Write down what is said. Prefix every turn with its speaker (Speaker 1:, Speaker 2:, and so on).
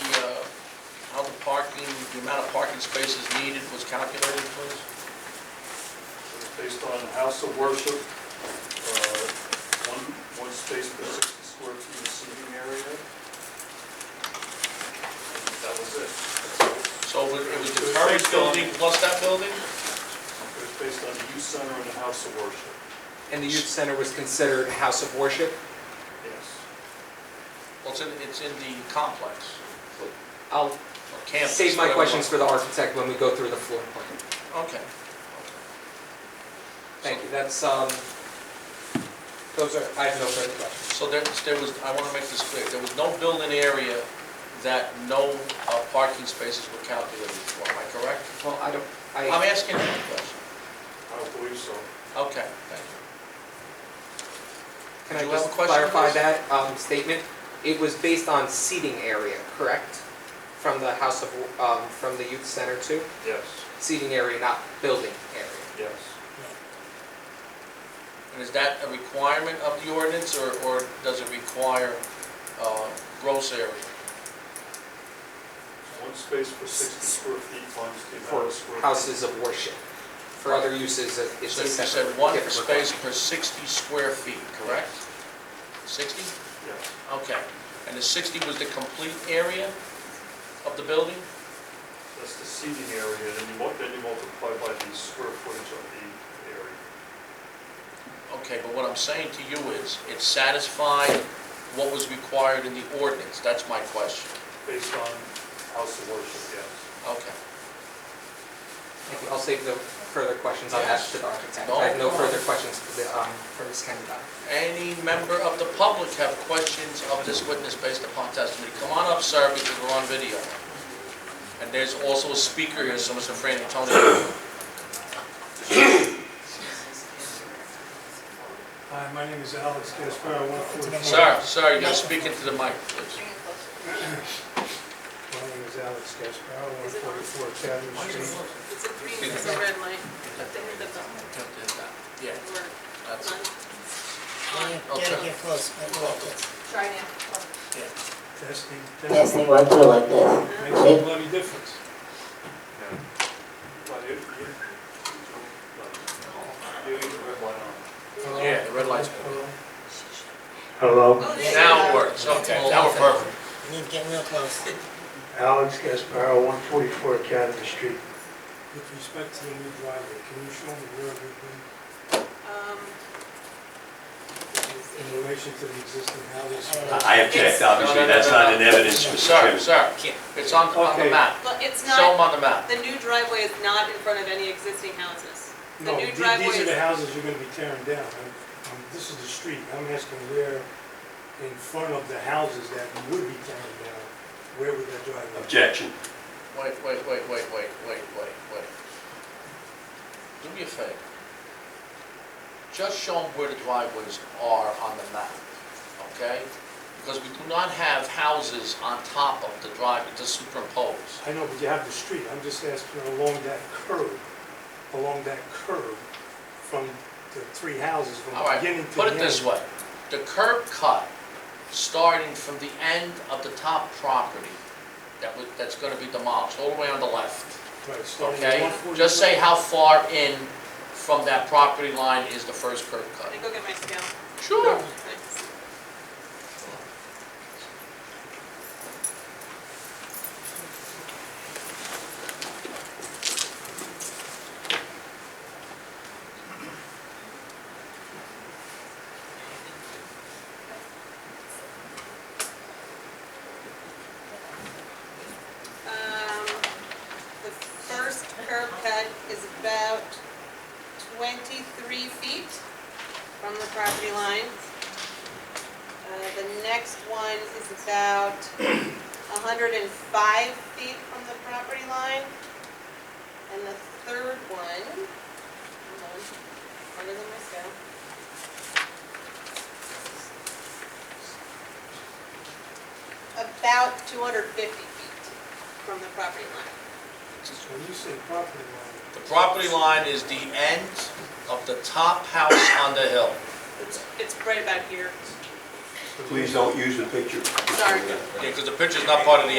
Speaker 1: uh, the amount of parking spaces needed was calculated, please?
Speaker 2: Based on house of worship, uh, one, one space per 60 square feet of seating area. That was it.
Speaker 1: So it was- it was the current building plus that building?
Speaker 2: It was based on the youth center and the house of worship.
Speaker 3: And the youth center was considered a house of worship?
Speaker 2: Yes.
Speaker 1: Well, it's in, it's in the complex,
Speaker 3: I'll
Speaker 1: or campus.
Speaker 3: save my
Speaker 1: whatever.
Speaker 3: questions for the architect when we go through the floor plan.
Speaker 1: Okay.
Speaker 3: Thank you, that's, um, those are, I have no further questions.
Speaker 1: So there, there was, I want to make this clear, there was no building area that no uh, parking spaces were calculated for, am I correct?
Speaker 3: Well, I don't,
Speaker 1: I'm
Speaker 3: I,
Speaker 1: asking you a question.
Speaker 2: I don't believe so.
Speaker 1: Okay, thank you.
Speaker 3: can I
Speaker 1: do you have
Speaker 3: just
Speaker 1: a question,
Speaker 3: clarify
Speaker 1: please?
Speaker 3: that um, statement? It was based on seating area, correct? From the house of, um, from the youth center to
Speaker 2: Yes,
Speaker 3: seating area, not building area.
Speaker 2: yes.
Speaker 1: And is that a requirement of the ordinance, or, or does it require uh, gross area?
Speaker 2: One space per 60 square feet times the amount of
Speaker 3: For
Speaker 2: square.
Speaker 3: houses of worship. For other uses, it- it's
Speaker 1: So
Speaker 3: a
Speaker 1: you
Speaker 3: separate.
Speaker 1: said one
Speaker 3: different
Speaker 1: space
Speaker 3: requirement.
Speaker 1: per 60 square feet, correct? 60?
Speaker 2: Yes,
Speaker 1: Okay. And the 60 was the complete area of the building?
Speaker 2: that's the seating area, and you mul- then you multiply by the square footage of the area.
Speaker 1: Okay, but what I'm saying to you is, it satisfied what was required in the ordinance, that's my question.
Speaker 2: Based on house of worship, yes.
Speaker 1: Okay.
Speaker 3: Thank you. I'll save the further questions on that
Speaker 1: Yes.
Speaker 3: to the architect.
Speaker 1: No
Speaker 3: I have no
Speaker 1: problem.
Speaker 3: further questions for the, um, for Ms. Kenny.
Speaker 1: Any member of the public have questions of this witness based upon testimony? Come on up, sir, because we're on video. And there's also a speaker here, so Mr. Fran Antonio.
Speaker 4: Hi, my name is Alex Gasparo, 114.
Speaker 1: Sir, sir, you're speaking to the mic, please.
Speaker 4: My name is Alex Gasparo, 144 Chatham Street.
Speaker 5: It's a green, it's a red light, but they the bell.
Speaker 1: Yeah, that's,
Speaker 6: Gotta get close, I go like this.
Speaker 5: Try now.
Speaker 4: Testing,
Speaker 6: Yes,
Speaker 4: testing,
Speaker 6: they want to do like this.
Speaker 4: makes no bloody difference.
Speaker 2: But it- it- You need the red light on.
Speaker 1: yeah, the red light's
Speaker 7: Hello,
Speaker 4: Hello?
Speaker 1: Now it works, okay, now we're perfect.
Speaker 6: You need to get real close.
Speaker 7: Alex Gasparo, 144 Academy Street.
Speaker 4: With respect to the new driveway, can you show me where it would be
Speaker 5: Um,
Speaker 4: in relation to the existing house?
Speaker 7: I
Speaker 8: I have checked, obviously, that's not in evidence, Mr.
Speaker 1: Sir,
Speaker 8: Chairman.
Speaker 1: sir, it's on, on the
Speaker 4: Okay.
Speaker 1: map.
Speaker 5: But it's
Speaker 1: Show them
Speaker 5: not,
Speaker 1: on the map.
Speaker 5: the new driveway is not in front of any existing houses. The
Speaker 4: No,
Speaker 5: new
Speaker 4: the-
Speaker 5: driveway
Speaker 4: these are the
Speaker 5: is-
Speaker 4: houses you're going to be tearing down. I'm- I'm- This is the street, I'm asking where in front of the houses that you would be tearing down, where would that driveway? be?
Speaker 8: Objection.
Speaker 1: Wait, wait, wait, wait, wait, wait, wait, wait. Do me a favor. Just show them where the driveways are on the map, okay? Because we do not have houses on top of the driveway to superimpose.
Speaker 4: I know, but you have the street, I'm just asking along that curve, along that curve from the three houses, from
Speaker 1: All
Speaker 4: the
Speaker 1: right,
Speaker 4: beginning to the
Speaker 1: put
Speaker 4: end.
Speaker 1: it this way. The curb cut, starting from the end of the top property, that was, that's gonna be demolished, all the way on the left.
Speaker 4: Right, starting at
Speaker 1: Okay,
Speaker 4: 140
Speaker 1: just say how far in from that property line is the first curb
Speaker 5: Let
Speaker 1: cut.
Speaker 5: me go get my scale. Um,
Speaker 1: Sure.
Speaker 5: Thanks. Um, The first curb cut is about 23 feet from the property line. Uh, The next one is about 105 feet from the property line. And the third one, hold on, harder than my scale. About 250 feet from the property line.
Speaker 4: When you say property line,
Speaker 1: The property line is the end of the top house on the hill.
Speaker 5: It's, it's right about here.
Speaker 4: so
Speaker 8: Please don't use the picture.
Speaker 5: Sorry.
Speaker 1: Yeah, because the picture's not part of the